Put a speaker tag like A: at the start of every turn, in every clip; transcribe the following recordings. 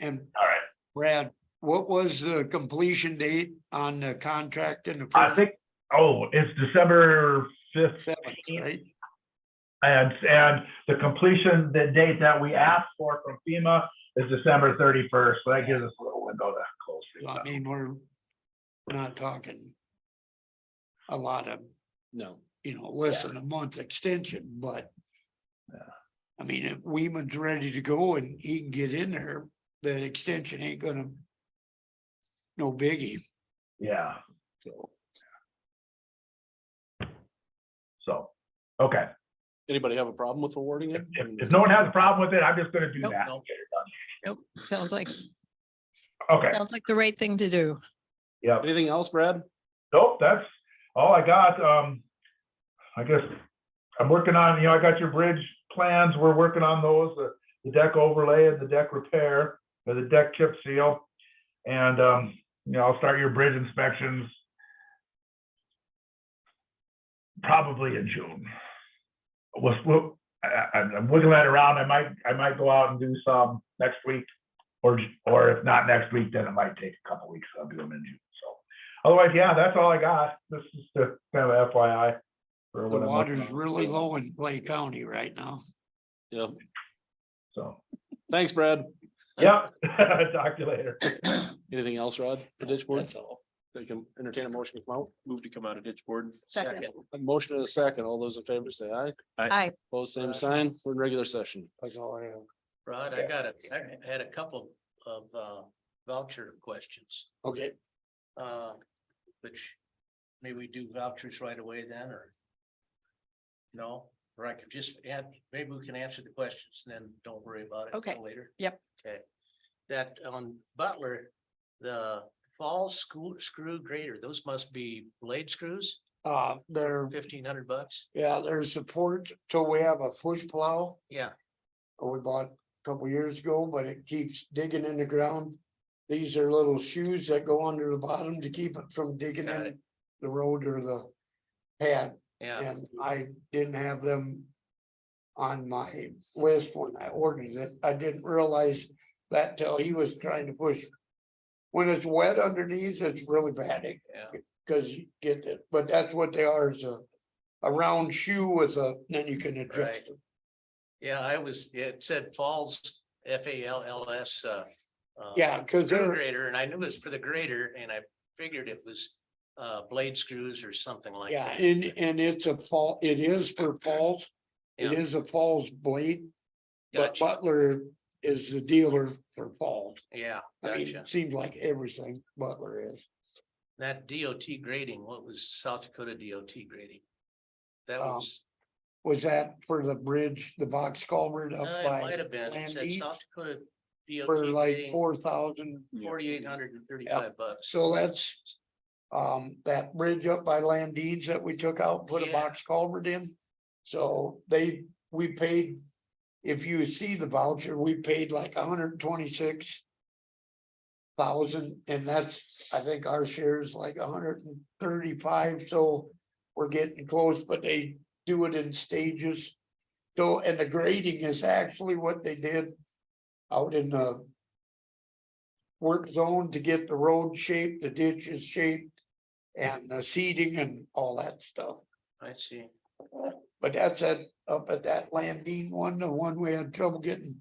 A: And
B: All right.
A: Brad, what was the completion date on the contract in the
B: I
A: first
B: think, oh, it's December fifth.
A: seven, right?
B: And, and the completion, the date that we asked for from FEMA is December thirty-first. So that gives us a little window to close.
A: So
B: things
A: I
B: up.
A: mean, we're we're not talking a lot of,
C: No.
A: you know, less than a month extension, but
B: Yeah.
A: I mean, if Weeman's ready to go and he can get in there, the extension ain't gonna no biggie,
B: Yeah,
A: so.
B: so, okay.
C: Anybody have a problem with awarding
B: If,
C: it? I
B: if-
C: mean,
B: if no one has a problem with it, I'm just gonna do
D: Nope,
B: that.
C: nope.
D: Nope, sounds like,
B: Okay,
D: sounds like the right thing to do.
B: yeah.
C: Anything else, Brad?
B: Nope, that's all I got. Um, I guess I'm working on, you know, I got your bridge plans. We're working on those, the, the deck overlay and the deck repair, or the deck chip seal. And, um, you know, I'll start your bridge inspections probably in June. We'll, we'll, I, I- I'm wiggling that around. I might, I might go out and do some next week. Or, or if not next week, then it might take a couple weeks. I'll do them in June, so. Otherwise, yeah, that's all I got. This is the kind of FYI. for
A: The
B: what I'm working
A: water's
B: on.
A: really low in Clay County right now.
C: Yeah.
B: So,
C: Thanks, Brad.
B: yep, talk to you later.
C: Anything else, Rod, for ditch board? They can entertain a motion to come out.
E: Move to come out of ditch board.
D: Second.
C: A motion and a second. All those in favor say aye.
D: Hi,
C: Opposed, same sign. We're in regular session.
A: That's all I have.
F: Rod, I got a, I had a couple of uh, voucher questions,
A: Okay,
F: uh, which maybe we do vouchers right away then, or? No, or I could just add, maybe we can answer the questions and then don't worry about it.
D: Okay.
F: till Later.
D: Yep.
F: Okay, that on Butler, the fall school screw grader, those must be blade screws,
A: uh, there,
F: fifteen hundred bucks?
A: yeah, there's support till we have a push plow.
F: Yeah,
A: or we bought a couple years ago, but it keeps digging in the ground. These are little shoes that go under the bottom to keep it from digging
F: Got
A: in the road or the pad,
F: yeah,
A: and I didn't have them on my list when I ordered it. I didn't realize that till he was trying to push. When it's wet underneath, it's really bad, it-
F: yeah,
A: cause you get it, but that's what they are, is a a round shoe with a, then you can
F: Right.
A: adjust it.
F: yeah, I was, it said Falls, F A L L S, uh. uh,
A: Yeah, cause
F: for the
A: they're.
F: grader, and I knew it was for the grader, and I figured it was uh blade screws or something like
A: Yeah,
F: that.
A: and, and it's a fall, it is for falls. It
F: Yeah.
A: is a falls blade, but
F: Gotcha.
A: Butler is the dealer for falls.
F: Yeah,
A: I mean,
F: gotcha.
A: it seems like everything Butler is.
F: That DOT grading, what was South Dakota DOT grading? That
A: Um,
F: was,
A: Was that for the bridge, the box culvert
F: uh,
A: up
F: it might
A: by,
F: have been, it
A: Land
F: said
A: East
F: South Dakota
A: for
F: DOT
A: like
F: grading,
A: four thousand?
F: forty-eight hundred and thirty-five bucks.
A: So that's, um, that bridge up by Landines that we took out, put a
F: Yeah.
A: box culvert in. So they, we paid, if you see the voucher, we paid like hundred and twenty-six thousand, and that's, I think our share is like hundred and thirty-five, so we're getting close, but they do it in stages. So, and the grading is actually what they did out in the work zone to get the road shaped, the ditches shaped, and the seeding and all that stuff.
F: I see.
A: But that's at, up at that Landine one, the one we had trouble getting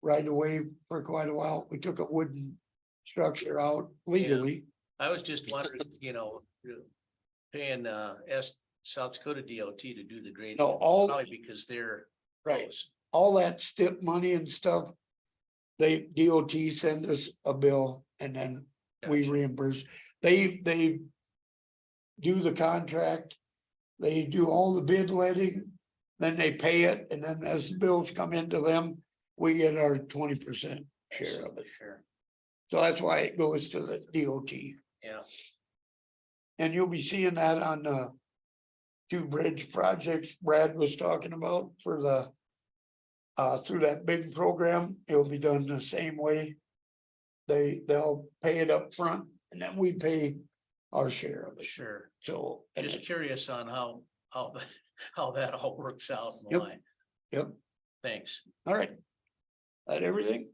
A: right away for quite a while. We took a wooden structure out legally.
F: I was just wondering, you know, paying uh S, South Dakota DOT to do the grading.
A: No, all-
F: Probably because they're.
A: Right,
F: close.
A: all that stip money and stuff. They DOT send us a bill and then we
F: Gotcha.
A: reimburse. They, they do the contract, they do all the bid letting, then they pay it, and then as the bills come into them, we get our twenty percent share of it.
F: Sure.
A: So that's why it goes to the DOT.
F: Yeah.
A: And you'll be seeing that on the two bridge projects Brad was talking about for the uh, through that big program, it'll be done the same way. They, they'll pay it up front, and then we pay our share of it,
F: Sure.
A: so. and
F: Just
A: it-
F: curious on how, how, th- how that all works out in the
A: Yep.
F: line.
A: Yep.
F: Thanks.
A: All right. That everything?